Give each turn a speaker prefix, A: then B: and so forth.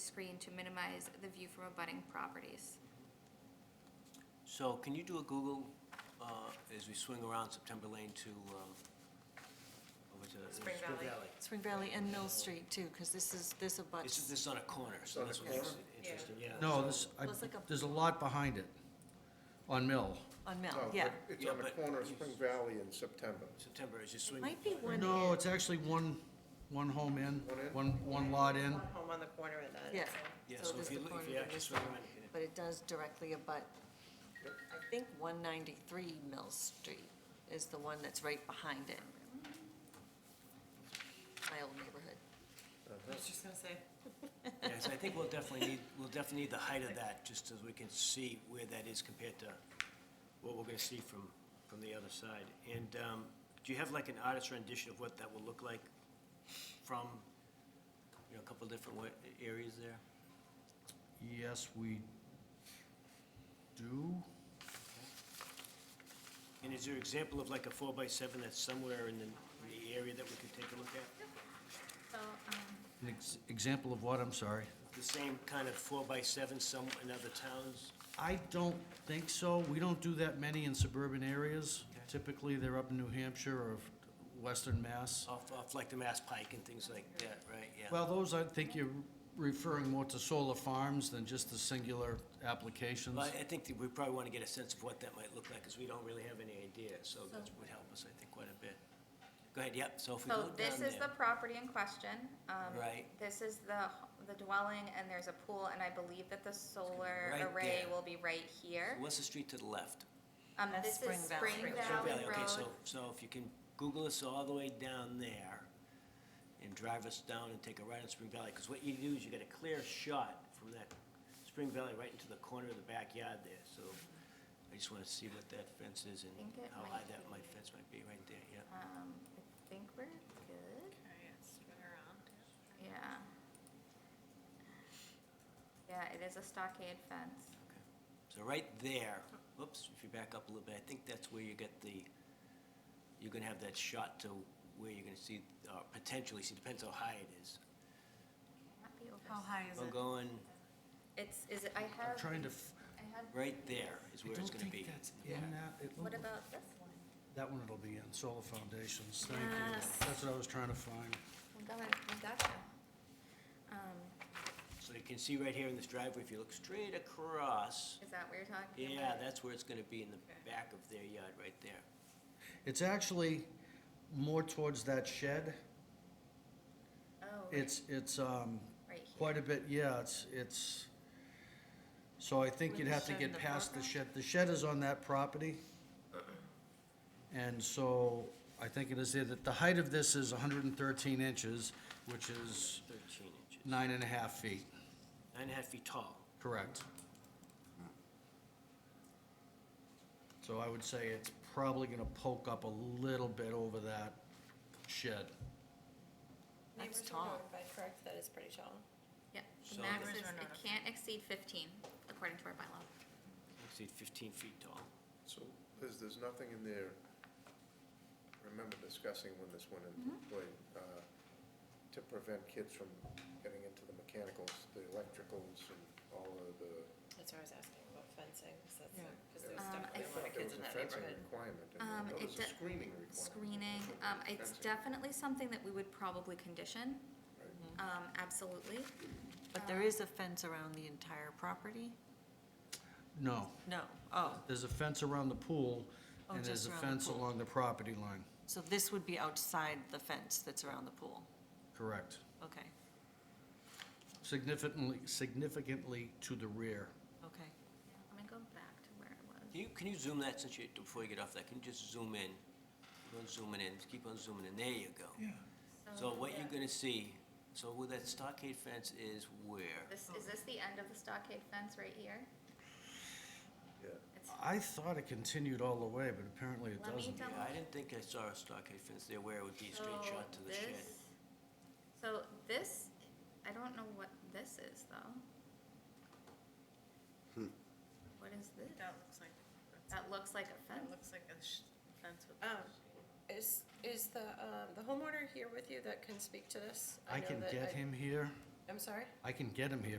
A: screen to minimize the view from abutting properties.
B: So can you do a Google uh, as we swing around September Lane to, um, over to?
C: Spring Valley.
D: Spring Valley and Mill Street too, because this is, this
B: This is,
D: abuts.
B: this is on a corner, so
E: on a
B: that's what makes
E: corner?
B: it interesting, yeah.
F: No,
B: so-
F: this, I,
D: Well, it's like a-
F: there's a lot behind it, on Mill.
D: on Mill,
E: No,
D: yeah.
E: Oh, but It's
B: Yeah,
E: on the
B: but
E: corner of
B: you-
E: Spring Valley in September.
B: September, as you swing.
D: Might be one
F: No,
D: in.
F: it's actually one, one home in,
E: One in?
F: one, one lot in.
C: One home on the corner of that.
D: Yeah.
B: Yeah,
D: So
B: so
D: it is
B: if you,
D: the
B: look-
D: corner
B: if you
D: of
B: actually
D: this
B: swing
D: lot.
B: around.
D: But it does directly abut, I think, 193 Mill Street is the one that's right behind it. My old neighborhood.
C: I was just gonna say,
B: Yes, I think we'll definitely need, we'll definitely need the height of that, just so we can see where that is compared to what we're gonna see from, from the other side. And, um, do you have like an artist rendition of what that will look like from, you know, a couple different wa- areas there?
F: Yes, we do.
B: And is there an example of like a four by seven that's somewhere in the, in the area that we could take a look at?
A: So, um,
F: An ex- example of what, I'm sorry?
B: The same kind of four by seven some, in other towns?
F: I don't think so. We don't do that many in suburban areas.
B: Okay.
F: Typically, they're up in New Hampshire or western Mass.
B: Off, off like the Mass Pike and things like that, right, Oh, yeah?
F: Well, those, I think you're referring more to solar farms than just the singular applications.
B: Well, I think that we probably want to get a sense of what that might look like, because we don't really have any idea, so that would help us, I think, quite a bit. Go ahead, yep, so if we go
A: So
B: down there.
A: this is the property in question. um,
B: Right.
A: This is the, the dwelling, and there's a pool, and I believe that the solar
B: right
A: array
B: there.
A: will be right here.
B: What's the street to the left?
A: Um,
D: That's
A: this is
D: Spring Valley.
A: Spring
D: Spring
A: Valley
B: Okay, so,
A: Road.
B: so if you can Google us all the way down there and drive us down and take a right on Spring Valley, because what you do is you get a clear shot from that Spring Valley right into the corner of the backyard there, so I just want to see what that fence is and
A: Think it
B: how
A: might
B: high that
A: be-
B: might fence might be right there, yeah.
A: Um, I think we're good, yeah. Yeah, it is a stockade fence.
B: So right there, whoops, if you back up a little bit, I think that's where you get the, you're gonna have that shot to where you're gonna see, uh, potentially, see, depends how high it is.
A: Not be over-
B: I'm going,
A: It's, is it, I
F: I'm
A: have,
F: trying to, f-
A: I have,
B: right there is
F: I
B: where it's
F: don't
B: gonna be.
F: think that's in
B: Yeah.
F: that. It
A: what
F: looked-
A: about this one?
F: That one it'll be in, solar foundations, thank you.
A: Yes.
F: That's what I was trying to find.
A: We got, it, we got you. Um,
B: So you can see right here in this driveway, if you look straight across,
A: is that what you're talking about?
B: yeah, that's where it's gonna be in the back of their yard, right there.
F: It's actually more towards that shed.
A: Oh, right,
F: It's, it's, um,
A: right here.
F: quite a bit, yeah, it's, it's, so I think
D: With
F: you'd
D: the
F: have to
D: shed in
F: get
D: the
F: past the
D: foreground?
F: shed. The shed is on that property. And so I think it is there that the height of this is hundred and thirteen inches, which is
B: Thirteen inches, nine
F: nine and a half feet,
B: and a half feet tall.
F: correct? So I would say it's probably gonna poke up a little bit over that shed.
C: neighbors
D: That's
C: are
D: tall.
C: notified, correct, that is pretty tall.
A: Yep, the
B: So
A: max
B: this-
A: is, it can't exceed fifteen, according to our bylaw.
B: See, fifteen feet tall.
E: So, Liz, there's nothing in there, I remember discussing when this went into
A: Mm-hmm.
E: play, uh, to prevent kids from getting into the mechanicals, the electricals, and all of the.
C: That's why I was asking about fencing, because
D: Yeah.
C: because there's
A: Um, I
C: definitely a lot
E: There
C: of kids
E: was
C: in
E: a
C: that
E: fencing
C: neighborhood.
E: Requirement, and
A: Um,
E: there
A: it
E: was a
A: de-
E: screening requirement.
A: Screening, um, it's
E: Fencing,
A: definitely something that we would probably condition,
E: right.
A: um, absolutely.
D: But there is a fence around the entire property?
F: No.
D: No, oh,
F: There's a fence around the pool,
D: Oh,
F: and there's
D: just
F: a
D: around the
F: fence
D: pool.
F: along the property line,
D: so this would be outside the fence that's around the pool,
F: correct.
D: okay,
F: Significantly, significantly to the rear.
D: okay.
A: Let me go back to where it was.
B: Can you, can you zoom that since you, before you get off that, can you just zoom in? Keep on zooming in, just keep on zooming in, there you go. Yeah. So
A: Oh,
B: what you're gonna see, so where that stockade fence is where?
A: This, is this the end of the stockade fence right here?
E: Yeah.
A: It's,
F: I thought it continued all the way, but apparently it
A: Let me
F: doesn't.
B: Yeah, I didn't think I saw a stockade fence there where it would be a
A: so
B: straight shot to the
A: this,
B: shed.
A: so this, I don't know what this is though. What is this?
G: That looks like, that's-
A: That looks like a
G: that
A: fence.
G: looks like a sh- fence with.
C: Um, Is, is the, um, the homeowner here with you that can speak to this?
F: I
C: know
F: can
C: that
F: get him here,
C: I'm sorry?
F: I can get him here,